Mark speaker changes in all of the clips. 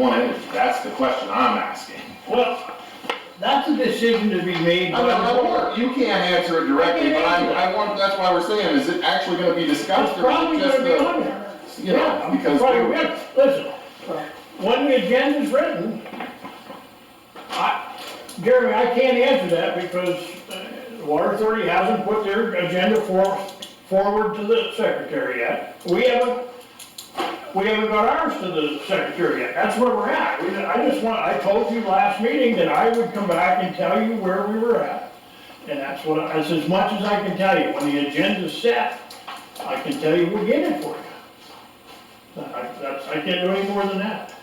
Speaker 1: want it, that's the question I'm asking.
Speaker 2: Well, that's a decision to be made by
Speaker 1: I mean, I
Speaker 2: the board.
Speaker 1: don't- you can't answer it directly, but I, I want, that's why we're saying, is it actually gonna be discussed
Speaker 2: It's
Speaker 1: or
Speaker 2: probably
Speaker 1: just
Speaker 2: gonna be
Speaker 1: the,
Speaker 2: on there.
Speaker 1: you know,
Speaker 2: Yeah,
Speaker 1: because.
Speaker 2: Right, right. listen, when the agenda's written, I, Jeremy, I can't answer that because uh, the Water Authority hasn't put their agenda for, forward to the secretary yet. We haven't, we haven't got ours to the secretary yet, that's where we're at. We- I just want, I told you last meeting that I would come back and tell you where we were at. And that's what, I- that's as much as I can tell you, when the agenda's set, I can tell you we're getting for you. I, that's, I can't do any more than that.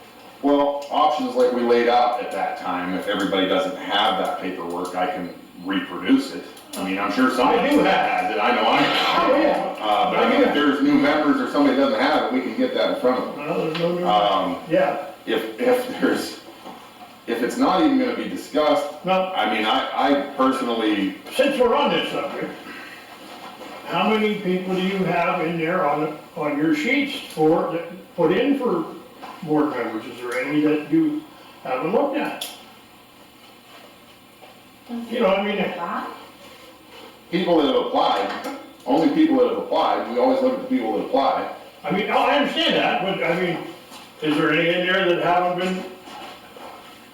Speaker 1: Well, options like we laid out at that time, if everybody doesn't have that paperwork, I can reproduce it. I mean, I'm sure somebody
Speaker 2: I do have-
Speaker 1: has it, I know I have.
Speaker 2: Oh,
Speaker 1: it.
Speaker 2: yeah.
Speaker 1: Uh, but I mean, if there's new members or somebody doesn't have it, we can get that in front of them.
Speaker 2: Well, there's no new-
Speaker 1: Um,
Speaker 2: yeah,
Speaker 1: if, if there's, if it's not even gonna be discussed,
Speaker 2: now,
Speaker 1: I mean, I, I personally,
Speaker 2: since we're on this subject, how many people do you have in there on, on your sheets for, that put in for board members? Is there any that you haven't looked at? You know, I mean,
Speaker 1: people that have applied, only people that have applied, we always look at the people that apply.
Speaker 2: I mean, oh, I understand that, but I mean, is there any in there that haven't been,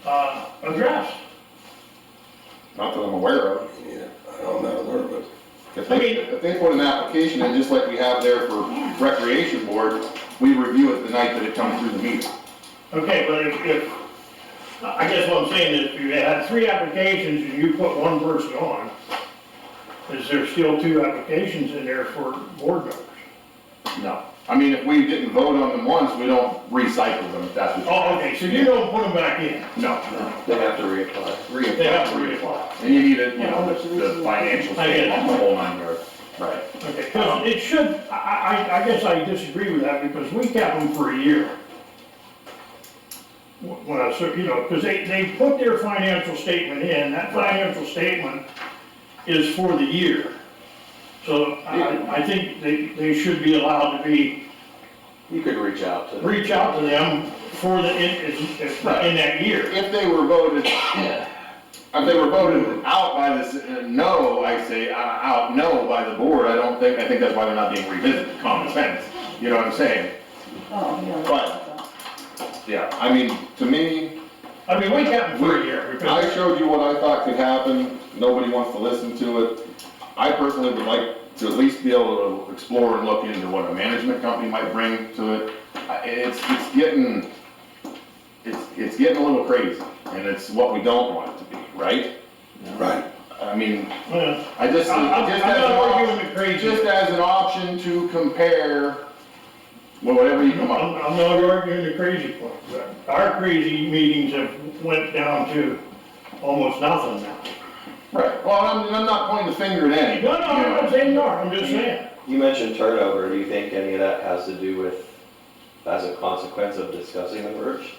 Speaker 2: uh, addressed?
Speaker 1: Not that I'm aware of.
Speaker 3: Yeah, I don't know, where, but
Speaker 1: If
Speaker 2: I
Speaker 1: they,
Speaker 2: mean-
Speaker 1: if they put an application in, just like we have there for recreation board, we review it the night that it comes through the meeting.
Speaker 2: Okay, but if, if, I guess what I'm saying is, if you had three applications and you put one person on, is there still two applications in there for board members?
Speaker 1: No. I mean, if we didn't vote on them once, we don't recycle them, if that's what.
Speaker 2: Oh, okay, so you don't put them back in?
Speaker 1: No.
Speaker 3: they have to reapply.
Speaker 1: Reapply.
Speaker 2: They have to reapply.
Speaker 1: And you need it, you know, the the financial
Speaker 2: I get it.
Speaker 1: statement, the whole nine yards. Right.
Speaker 2: Okay, 'cause Um, it should, I, I, I guess I disagree with that because we kept them for a year. Wh- When I, said, you know, because they, they put their financial statement in, that financial statement is for the year. So I, I think they, they should be allowed to be,
Speaker 3: You could reach out to.
Speaker 2: reach out to them for the, in, in- in that year.
Speaker 1: If they were voted,
Speaker 3: Yeah,
Speaker 1: if they were voted out by this, uh, no, I say, uh, out, no by the board, I don't think, I think that's why they're not being revisited, common sense. You know what I'm saying?
Speaker 4: Oh, yeah.
Speaker 1: But- Yeah. I mean, to me,
Speaker 2: I mean, we kept them for a year because,
Speaker 1: I showed you what I thought could happen, nobody wants to listen to it. I personally would like to at least be able to explore and look into what a management company might bring to it. I- It's, it's getting, it's, it's getting a little crazy, and it's what we don't want it to be, right?
Speaker 3: Right.
Speaker 1: I mean,
Speaker 2: well,
Speaker 1: I just,
Speaker 2: I- I-
Speaker 1: just
Speaker 2: I'm
Speaker 1: as an
Speaker 2: not arguing
Speaker 1: option,
Speaker 2: with crazy.
Speaker 1: just as an option to compare, well, whatever you
Speaker 2: I'm,
Speaker 1: come up with.
Speaker 2: I'm not arguing the crazy point, but our crazy meetings have went down to almost nothing now.
Speaker 1: Right, well, I'm, I'm not pointing the finger at any.
Speaker 2: No, no,
Speaker 1: you
Speaker 2: I'm
Speaker 1: know.
Speaker 2: not saying no, I'm just saying,
Speaker 3: You mentioned turnover, do you think any of that has to do with, as a consequence of discussing the merge?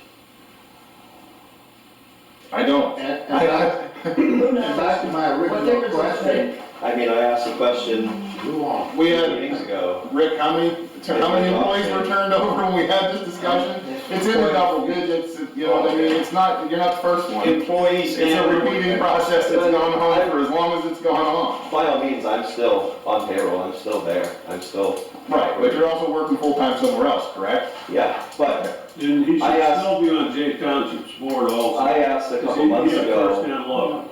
Speaker 1: I don't.
Speaker 5: And, and back,
Speaker 4: Who
Speaker 5: and
Speaker 4: knows
Speaker 5: back to my
Speaker 4: what they're
Speaker 5: original
Speaker 4: gonna
Speaker 5: question,
Speaker 4: say?
Speaker 3: I mean, I asked a question
Speaker 5: move on.
Speaker 1: We
Speaker 3: two
Speaker 1: had,
Speaker 3: meetings ago,
Speaker 1: Rick, how many, how many employees were turned over when we had this discussion? It's in the double digits, you know what I mean, it's not, you're not the first one.
Speaker 3: employees
Speaker 1: It's a
Speaker 3: and.
Speaker 1: repeating process that's gone on for as long as it's gone on.
Speaker 3: By all means, I'm still on payroll, I'm still there, I'm still,
Speaker 1: Right, but you're also working full-time somewhere else, correct?
Speaker 3: yeah, but
Speaker 6: And he should
Speaker 3: I asked-
Speaker 6: still be on Jay Township's board also.
Speaker 3: I asked a couple months
Speaker 6: He's a
Speaker 3: ago,
Speaker 6: first-hand lawyer.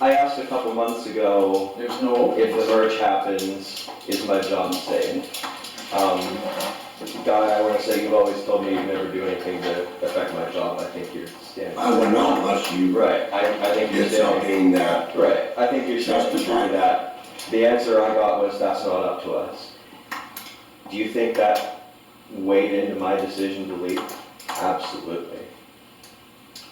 Speaker 3: I asked a couple months ago
Speaker 5: There's no opening.
Speaker 3: if the merge happens, is my job staying? Um, Guy, I wanna say, you've always told me you'd never do anything to affect my job, I think you're standing.
Speaker 7: I would not unless you
Speaker 3: Right, I, I think you're
Speaker 7: did
Speaker 3: standing,
Speaker 7: something that,
Speaker 3: right, I think you're standing true to that. The answer I got was, that's not up to us. Do you think that weighed into my decision to leave? Absolutely.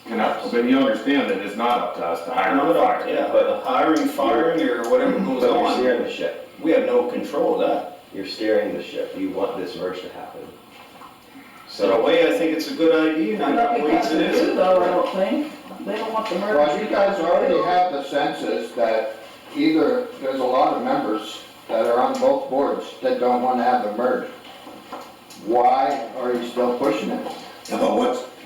Speaker 1: But you understand that it's not up to us to hire or fire.
Speaker 8: Yeah, but hiring, firing, or whatever
Speaker 3: But
Speaker 8: goes
Speaker 3: you're
Speaker 8: on,
Speaker 3: steering the ship,
Speaker 8: we have no control of that.
Speaker 3: you're steering the ship, you want this merge to happen.
Speaker 8: So in a
Speaker 3: So,
Speaker 8: way, I think it's a good idea, and
Speaker 4: Not
Speaker 8: I know
Speaker 4: because
Speaker 8: it
Speaker 4: they
Speaker 8: is.
Speaker 4: do though, I don't think. They don't want the merger.
Speaker 5: Well, you guys already have the census that either, there's a lot of members that are on both boards that don't wanna have the merge. Why are you still pushing it?
Speaker 7: Yeah, but what's,